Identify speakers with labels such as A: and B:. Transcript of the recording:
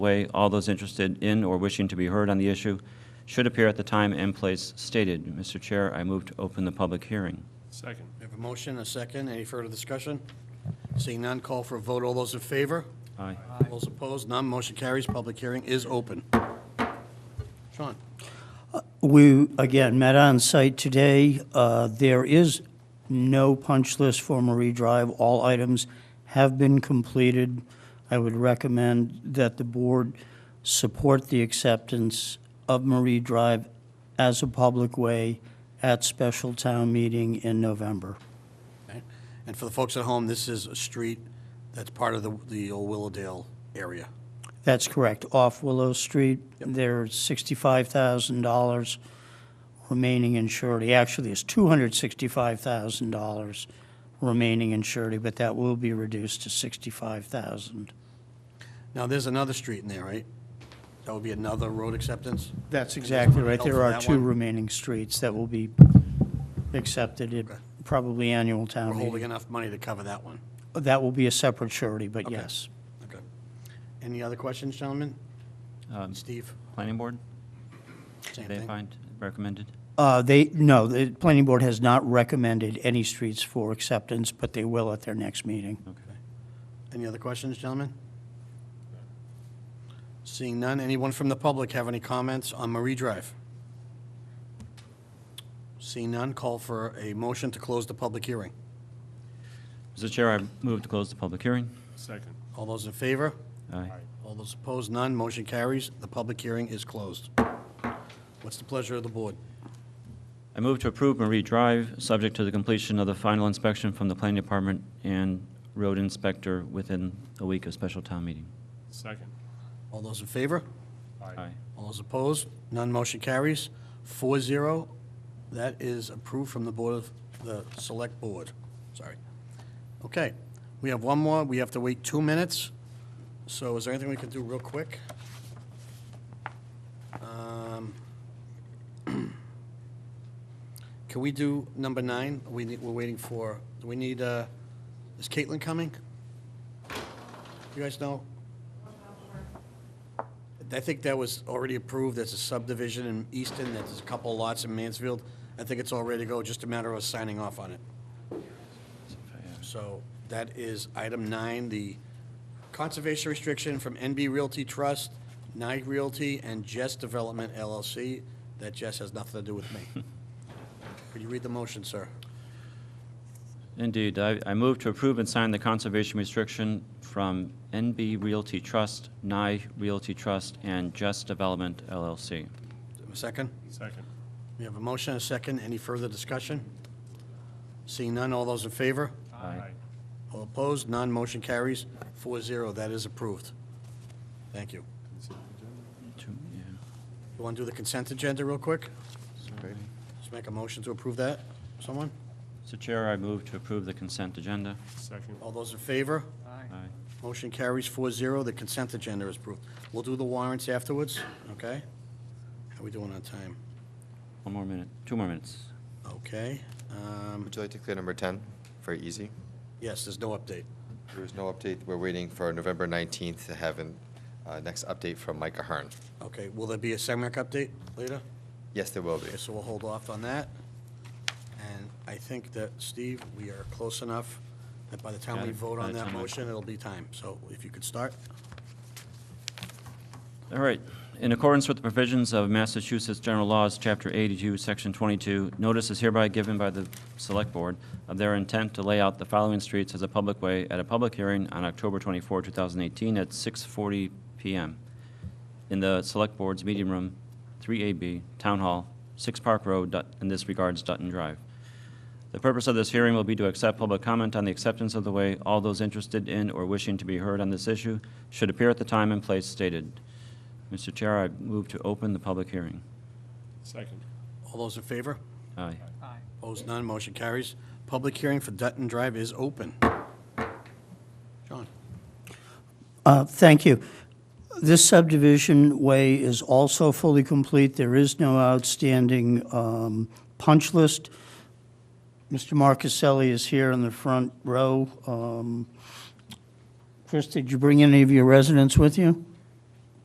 A: way, all those interested in or wishing to be heard on the issue should appear at the time and place stated. Mr. Chair, I move to open the public hearing.
B: Second.
C: We have a motion, a second. Any further discussion? Seeing none, call for a vote. All those in favor?
A: Aye.
C: All Those opposed? None. Motion carries. Public hearing is open. Sean?
D: We, again, met on site today. Uh, There is no punch list for Marie Drive. All items have been completed. I would recommend that the board support the acceptance of Marie Drive as a public way at special town meeting in November.
C: Okay. And for the folks at home, this is a street that's part of the, the old Willowdale area.
D: That's correct, off Willow Street. There's $65,000 remaining in surety. Actually, it's $265,000 remaining in surety, but that will be reduced to $65,000.
C: Now, there's another street in there, right? That would be another road acceptance?
D: That's exactly right. There are
C: That
D: two
C: one?
D: remaining streets that will be accepted at probably annual
C: We're
D: town
C: holding
D: meeting.
C: enough money to cover that one.
D: That will be a separate surety, but
C: Okay.
D: yes.
C: Okay. Any other questions, gentlemen?
A: Um,
C: Steve?
A: Planning Board,
C: Same
A: they
C: thing?
A: find recommended?
D: Uh, They, no, the planning board has not recommended any streets for acceptance, but they will at their next meeting.
C: Any other questions, gentlemen? Seeing none, anyone from the public have any comments on Marie Drive? Seeing none, call for a motion to close the public hearing.
A: Mr. Chair, I move to close the public hearing.
B: Second.
C: All those in favor?
A: Aye.
C: All those opposed, none, motion carries. The public hearing is closed. What's the pleasure of the board?
A: I move to approve Marie Drive, subject to the completion of the final inspection from the Planning Department and Road Inspector within a week of special town meeting.
B: Second.
C: All those in favor?
A: Aye.
C: All those opposed, none, motion carries. Four zero, that is approved from the Board of, the Select Board, sorry. Okay, we have one more, we have to wait two minutes, so is there anything we can do real quick? Um, Can we do number nine? We need, we're waiting for, do we need, uh, is Caitlin coming? You guys know? I think that was already approved, there's a subdivision in Easton, there's a couple lots in Mansfield. I think it's all ready to go, just a matter of signing off on it. So that is item nine, the conservation restriction from NB Realty Trust, Nye Realty, and Jess Development LLC. That Jess has nothing to do with me. Could you read the motion, sir?
A: Indeed, I, I move to approve and sign the conservation restriction from NB Realty Trust, Nye Realty Trust, and Just Development LLC.
C: A second?
B: Second.
C: We have a motion, a second. Any further discussion? Seeing none, all those in favor?
A: Aye.
C: All opposed, none, motion carries, four zero, that is approved. Thank you.
A: To- yeah.
C: You want to do the consent agenda real quick? Just make a motion to approve that, someone?
A: Mr. Chair, I move to approve the consent agenda.
B: Second.
C: All those in favor?
A: Aye.
C: Motion carries four zero, the consent agenda is approved. We'll do the warrants afterwards, okay? How we doing on time?
A: One more minute, two more minutes.
C: Okay, um,
E: Would you like to clear number 10? Very easy.
C: yes, there's no update.
E: There is no update. We're waiting for November 19th to have an uh, next update from Mike Ahern.
C: Okay, will there be a SEMRAC update later?
E: Yes, there will be.
C: Okay, so we'll hold off on that. And I think that, Steve, we are close enough that by the time we
A: Yeah,
C: vote
A: by
C: on
A: the
C: that
A: time I-
C: motion, it'll be time. So if you could start.
A: All right. In accordance with the provisions of Massachusetts General Laws, Chapter 82, Section 22, notice is hereby given by the Select Board of their intent to lay out the following streets as a public way at a public hearing on October 24, 2018, at 6:40 PM in the Select Board's Meeting Room, 3AB, Town Hall, 6 Park Road, Dut- in this regards Dutton Drive. The purpose of this hearing will be to accept public comment on the acceptance of the way. All those interested in or wishing to be heard on this issue should appear at the time and place stated. Mr. Chair, I move to open the public hearing.
B: Second.
C: All those in favor?
A: Aye.
C: Opposed, none, motion carries. Public hearing for Dutton Drive is open. John?
D: Uh, Thank you. This subdivision way is also fully complete. There is no outstanding um, punch list. Mr. Marcuselli is here in the front row. Um, Chris, did you bring any of your residents with you?